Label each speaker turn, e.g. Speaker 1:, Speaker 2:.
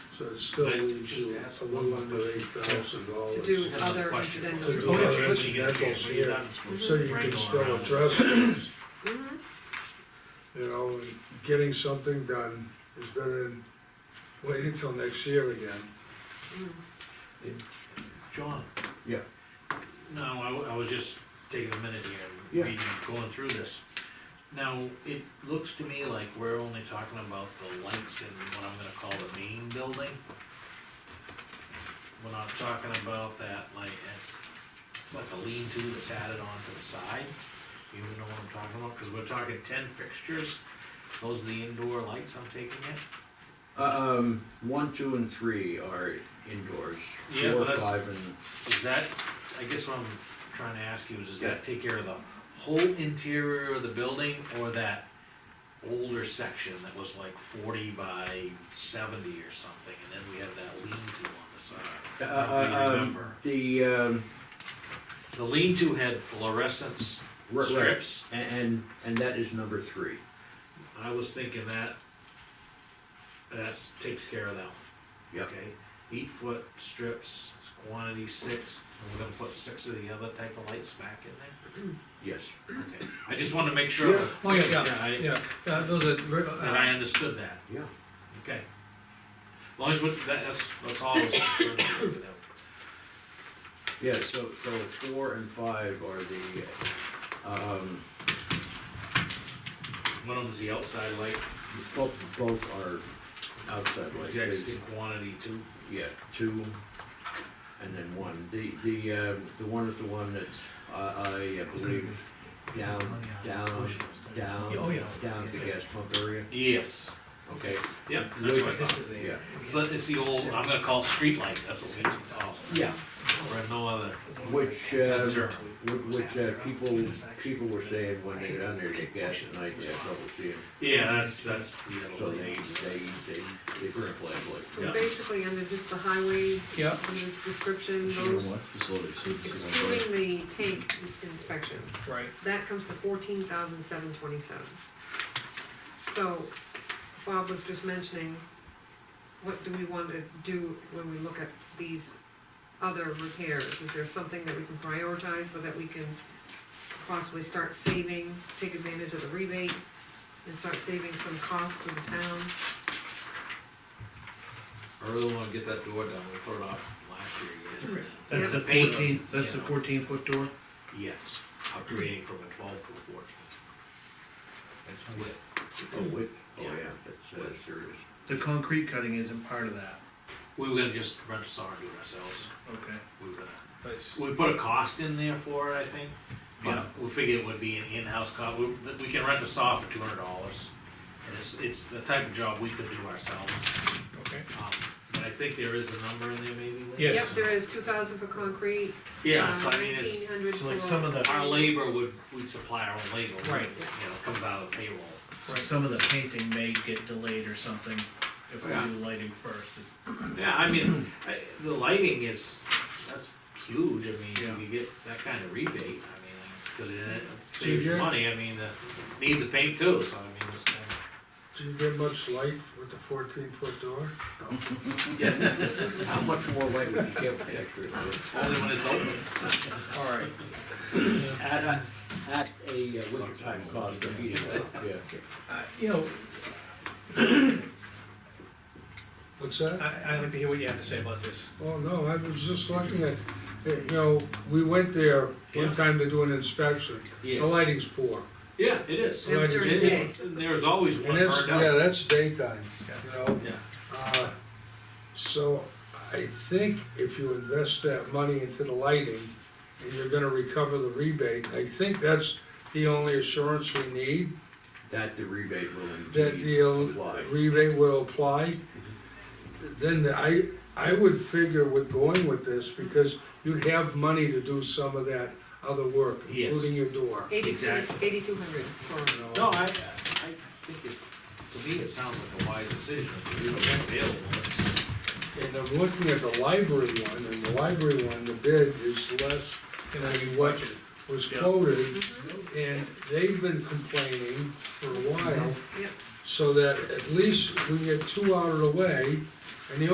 Speaker 1: So it's still
Speaker 2: But
Speaker 1: leaves
Speaker 2: just
Speaker 1: you
Speaker 2: ask
Speaker 1: a
Speaker 2: one
Speaker 1: little under
Speaker 2: question.
Speaker 1: eight thousand dollars.
Speaker 3: To do
Speaker 2: Another
Speaker 3: other
Speaker 2: question.
Speaker 3: incidental.
Speaker 1: Oh, yeah, listen,
Speaker 2: Everybody
Speaker 1: that's
Speaker 2: gets
Speaker 1: all
Speaker 2: it,
Speaker 1: here.
Speaker 2: we're not supposed
Speaker 1: So
Speaker 2: to
Speaker 1: you can
Speaker 2: wrangle
Speaker 1: still
Speaker 2: around.
Speaker 1: address things,
Speaker 3: Mhm.
Speaker 1: you know, and getting something done is better than waiting till next year again.
Speaker 3: Mhm.
Speaker 2: John?
Speaker 4: Yeah.
Speaker 2: No, I, w- I was just taking a minute here,
Speaker 4: Yeah.
Speaker 2: reading, going through this. Now, it looks to me like we're only talking about the lights in what I'm gonna call the main building. We're not talking about that, like, it's, it's like a lean-to that's added on to the side. You know what I'm talking about, cause we're talking ten fixtures, those are the indoor lights I'm taking it.
Speaker 4: Uh, Um, one, two, and three are indoors.
Speaker 2: Yeah,
Speaker 4: Four,
Speaker 2: but that's-
Speaker 4: five, and
Speaker 2: Is that, I guess what I'm trying to ask you is, does that take care of the whole interior of the building or that older section that was like forty by seventy or something, and then we have that lean-to on the side?
Speaker 4: Uh,
Speaker 2: I don't know if you
Speaker 4: uh, um,
Speaker 2: remember.
Speaker 4: the um,
Speaker 2: The lean-to had fluorescence
Speaker 4: right, right.
Speaker 2: strips.
Speaker 4: A- and and that is number three.
Speaker 2: I was thinking that, that's, takes care of that one.
Speaker 4: Yep.
Speaker 2: Okay, eight foot strips, quantity six, and we're gonna put six of the other type of lights back in there?
Speaker 4: Yes.
Speaker 2: Okay, I just wanted to make sure.
Speaker 4: Yeah.
Speaker 5: Oh, yeah, yeah,
Speaker 2: I-
Speaker 5: yeah, Uh, those are, re-
Speaker 2: That I
Speaker 5: uh,
Speaker 2: understood that,
Speaker 4: Yeah.
Speaker 2: okay. As long as, with- that- that's, that's all I was concerned with, you know.
Speaker 4: Yeah. So so four and five are the uh, um,
Speaker 2: One of them's the outside light,
Speaker 4: both both are outside lights. They-
Speaker 2: exact quantity too.
Speaker 4: Yeah, two, and then one. The, the, uh, the one is the one that's, uh, I, I believe, down,
Speaker 6: Oh, uh,
Speaker 4: down, down,
Speaker 5: Oh, yeah.
Speaker 4: down at the gas pump area.
Speaker 2: Yes.
Speaker 4: Okay,
Speaker 2: Yep, that's what I
Speaker 5: this
Speaker 2: thought.
Speaker 5: is the.
Speaker 4: yeah,
Speaker 2: So it's the old, I'm gonna call it street light, that's what we used to call it.
Speaker 4: yeah,
Speaker 2: Or no other,
Speaker 4: which, uh,
Speaker 2: That's right.
Speaker 4: whi- which, uh, people, people were saying when they got on there, they gas at night, they had trouble seeing.
Speaker 2: yeah, that's, that's the other
Speaker 4: So
Speaker 2: one.
Speaker 4: they, they, they, they burn flashlights.
Speaker 2: Yeah.
Speaker 3: So basically, under just the highway,
Speaker 5: Yeah,
Speaker 3: in this description, those excluding the tank inspections,
Speaker 5: right,
Speaker 3: that comes to fourteen thousand seven twenty-seven. So Bob was just mentioning, what do we want to do when we look at these other repairs? Is there something that we can prioritize so that we can possibly start saving, take advantage of the rebate, and start saving some costs to the town?
Speaker 2: I really wanna get that door done, we put it off last year again.
Speaker 6: That's
Speaker 3: Yeah.
Speaker 6: a
Speaker 2: The paint,
Speaker 6: fourteen, that's a
Speaker 2: you know.
Speaker 6: fourteen foot door?
Speaker 2: Yes, upgrading from a twelve to a fourteen. That's width.
Speaker 4: Oh, wait, oh,
Speaker 2: Yeah.
Speaker 4: yeah, that's, uh, serious.
Speaker 6: The concrete cutting isn't part of that,
Speaker 2: We were gonna just rent a saw and do it ourselves,
Speaker 6: okay.
Speaker 2: we were gonna
Speaker 5: but it's,
Speaker 2: We put a cost in there for it, I think,
Speaker 4: Yeah.
Speaker 2: but we figured it would be an in-house cost, we, that we can rent a saw for two hundred dollars. And it's, it's the type of job we could do ourselves,
Speaker 5: okay,
Speaker 2: um, but I think there is a number in there maybe. Lee?
Speaker 5: Yes.
Speaker 3: Yep, there is two thousand for concrete,
Speaker 2: Yeah, so I mean,
Speaker 3: nineteen
Speaker 2: it's,
Speaker 3: hundred
Speaker 6: So
Speaker 3: for.
Speaker 6: like some of the-
Speaker 2: our labor would, we'd supply our own labor.
Speaker 5: Right.
Speaker 2: You know, comes out of the payroll.
Speaker 5: right,
Speaker 6: Some of the painting may get delayed or something if we do lighting first.
Speaker 2: Yeah, I mean, I, the lighting is, that's huge, I mean,
Speaker 6: Yeah.
Speaker 2: if you get that kind of rebate, I mean, cause it it
Speaker 1: So
Speaker 2: saves you
Speaker 1: you're-
Speaker 2: money, I mean, the, need the paint too, so I mean, it's kind of.
Speaker 1: Do you get much light with the fourteen foot door? No.
Speaker 4: How much more light would you get with extra?
Speaker 2: Only when it's open.
Speaker 6: All right,
Speaker 4: At a, at a uh, winter time cost of heating up, yeah.
Speaker 5: Uh, you know,
Speaker 1: What's that?
Speaker 5: I, I'd like to hear what you have to say about this.
Speaker 1: Oh, no, I was just looking at, eh, you know, we went there one
Speaker 2: Yeah.
Speaker 1: time to do an inspection. The
Speaker 2: Yes.
Speaker 1: lighting's poor.
Speaker 2: Yeah, it is.
Speaker 1: Yeah.
Speaker 3: That's
Speaker 1: Like,
Speaker 3: during the day.
Speaker 2: And There's always one
Speaker 1: And it's,
Speaker 2: burned
Speaker 1: yeah,
Speaker 2: out.
Speaker 1: that's daytime,
Speaker 5: Yeah.
Speaker 1: you know?
Speaker 2: Yeah.
Speaker 1: Uh, So I think if you invest that money into the lighting, and you're gonna recover the rebate, I think that's the only assurance we need,
Speaker 4: That the rebate will
Speaker 1: that
Speaker 4: indeed
Speaker 1: the
Speaker 4: apply.
Speaker 1: rebate will apply. Then I, I would figure with going with this, because you'd have money to do some of that other work,
Speaker 2: Yes.
Speaker 1: including your door.
Speaker 3: Eighty-two,
Speaker 2: Exactly.
Speaker 3: eighty-two hundred for,
Speaker 2: No, I, I think it, to me, it sounds like a wise decision. If you're available, it's,
Speaker 1: And I'm looking at the library one, and the library one, the bid is less
Speaker 5: Can
Speaker 1: than
Speaker 5: I be
Speaker 1: what
Speaker 5: watching?
Speaker 1: was
Speaker 5: Yeah.
Speaker 1: quoted, and they've been complaining for a while,
Speaker 3: yep,
Speaker 1: so that at least we get two out of the way,